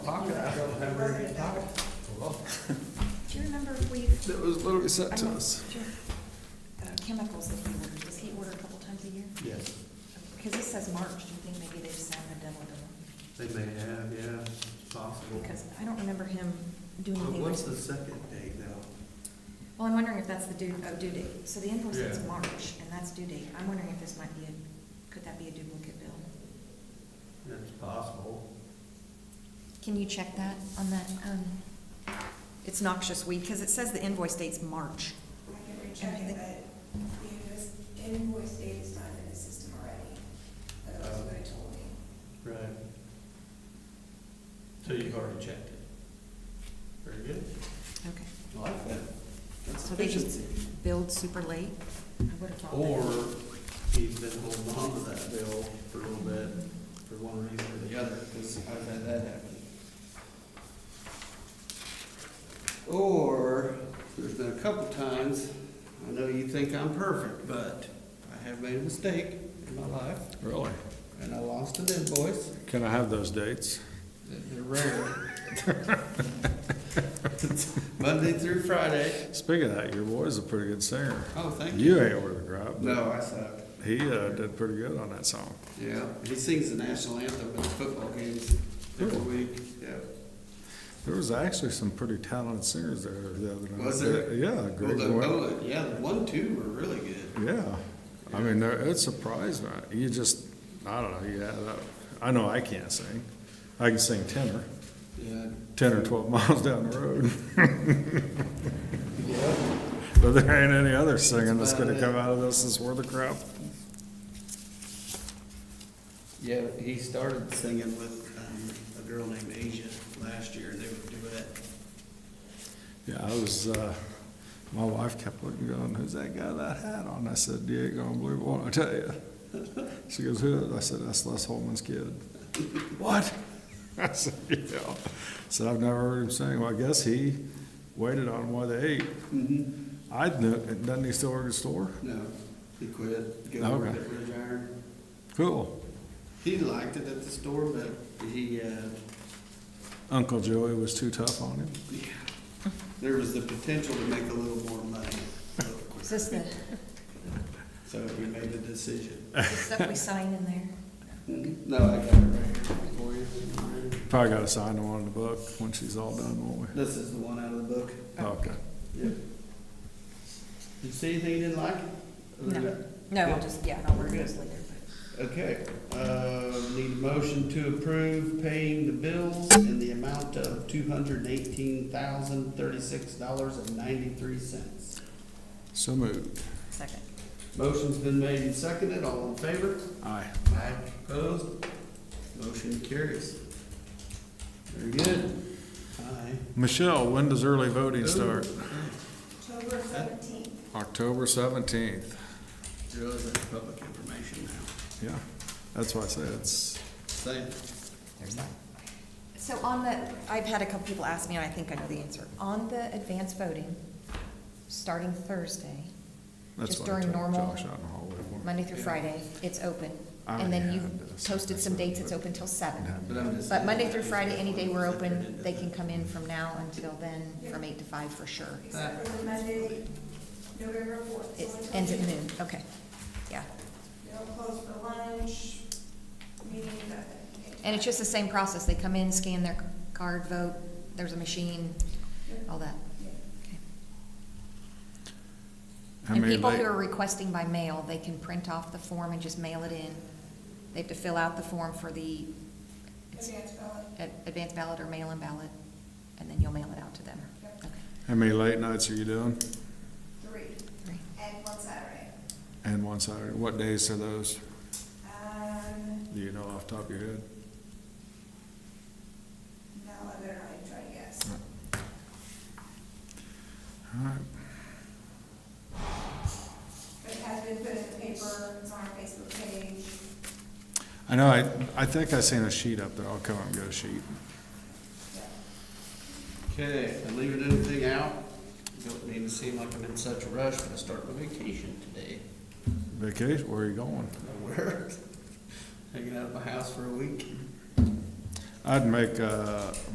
We're gonna talk. Do you remember if we've, That was literally I sent to know, us. sure, uh, chemicals that he orders, does he order a couple times a year? Yes, Because this says March, do you think maybe they've sent a demo bill? they may have, yeah, it's possible. Because I don't remember him doing But anything. What's with- the second date now? Well, I'm wondering if that's the due, oh, due date. So the invoice is Yeah. March, and that's due date. I'm wondering if this might be a, could that be a duplicate bill? It's possible. Can you check that on that, um, it's noxious weed, because it says the invoice date's March. I can recheck it, but the invoice- invoice date is not in the system already. That's what it told me. Right. So you've already checked it? Very good. Okay. Like that. That's So they just efficiency. billed super late? I would have thought. Or he's been holding on to that bill for a little bit, for one reason or the other, because I've had that happen. Or, there's been a couple times, I know you think I'm perfect, but I have made a mistake in my life, Really? and I lost an invoice, Can I have those dates? they're rare. Monday through Friday. Speaking of that, your boy's a pretty good singer. Oh, thank you. You ain't over the crowd. but No, I suck. He uh, did pretty good on that song. Yeah, he sings the national anthem at the football games every Really? week, yeah. There was actually some pretty talented singers there the other night. Was there? Yeah, Well, Greg the, Boyd. oh, yeah, the one, two were really good. Yeah. I mean, there- it surprised me. You just, I don't know, you add up. I know I can't sing. I can sing tenor, Yeah. ten or twelve miles down the road. Yeah. But there ain't any other singing that's about gonna it. come out of this that's worth a crap. Yeah, he started singing with, um, a girl named Asia last year, they would do it. Yeah, I was, uh, my wife kept looking, going, who's that guy with that hat on? I said, you ain't gonna believe what I tell you. She goes, who? is it?" I said, that's Les Holman's kid. What? I said, yeah. Said, I've never heard him sing. Well, I guess he waited on him while they ate. I knew, doesn't he still work at the store? No, he quit, go over Oh, Okay. at Ridge Iron. Cool. He liked it at the store, but he, uh, Uncle Joey was too tough on him. yeah, there was the potential to make a little more money. a little quicker. Is this the, So we made the decision. the stuff we sign in there? No, I got it right here for you. Probably gotta sign the one in the book when she's all done, won't we? This is the one out of the book. Okay. Yep. You see anything you didn't like? Uh, No, no, I'll just, yeah, I'll work those later. Okay, uh, need a motion to approve paying the bills in the amount of two hundred and eighteen thousand, thirty-six dollars and ninety-three cents. So moved. Second. Motion's been made and seconded, all in favor? Aye. Aye. Opposed? Motion carries. Very good. Aye. Michelle, when does early voting start? October seventeenth. October seventeenth. Realize that's public information now. Yeah, that's why I say it's, Same. So on the, I've had a couple people ask me, and I think I know the answer. On the advanced voting, starting Thursday, that's just why I during took normal, Josh out in the hallway. one- Monday through Yeah. Friday, it's open. I And then already you had this. posted some dates, it's open till seven. Yeah. But I'm just- But Monday through Friday, any day we're open, they can come in from now until then, from eight to five for sure. Except for the Monday, November fourth. It ends at noon, okay, yeah. They'll close for lunch, meeting, nothing. And it's just the same process, they come in, scan their card, vote, there's a machine, all that. Okay. How And many people who late- are requesting by mail, they can print off the form and just mail it in. They have to fill out the form for the Advance ballot. ad- advance ballot or mail-in ballot, and then you'll mail it out to them. Yep. Okay, How many late nights are you doing? Three, great. and one Saturday. And one Saturday, what days are those? Um, Do you know off the top of your head? no, I better not even try to guess. All right, But it has been put in the paper, it's on our Facebook page. I know, I, I think I seen a sheet up there, I'll come up and get a sheet. Okay, I'm leaving anything out. Don't mean to seem like I'm in such a rush, but I start my vacation today. Vacation, where are you going? Nowhere. Hanging out at my house for a week. I'd make, uh,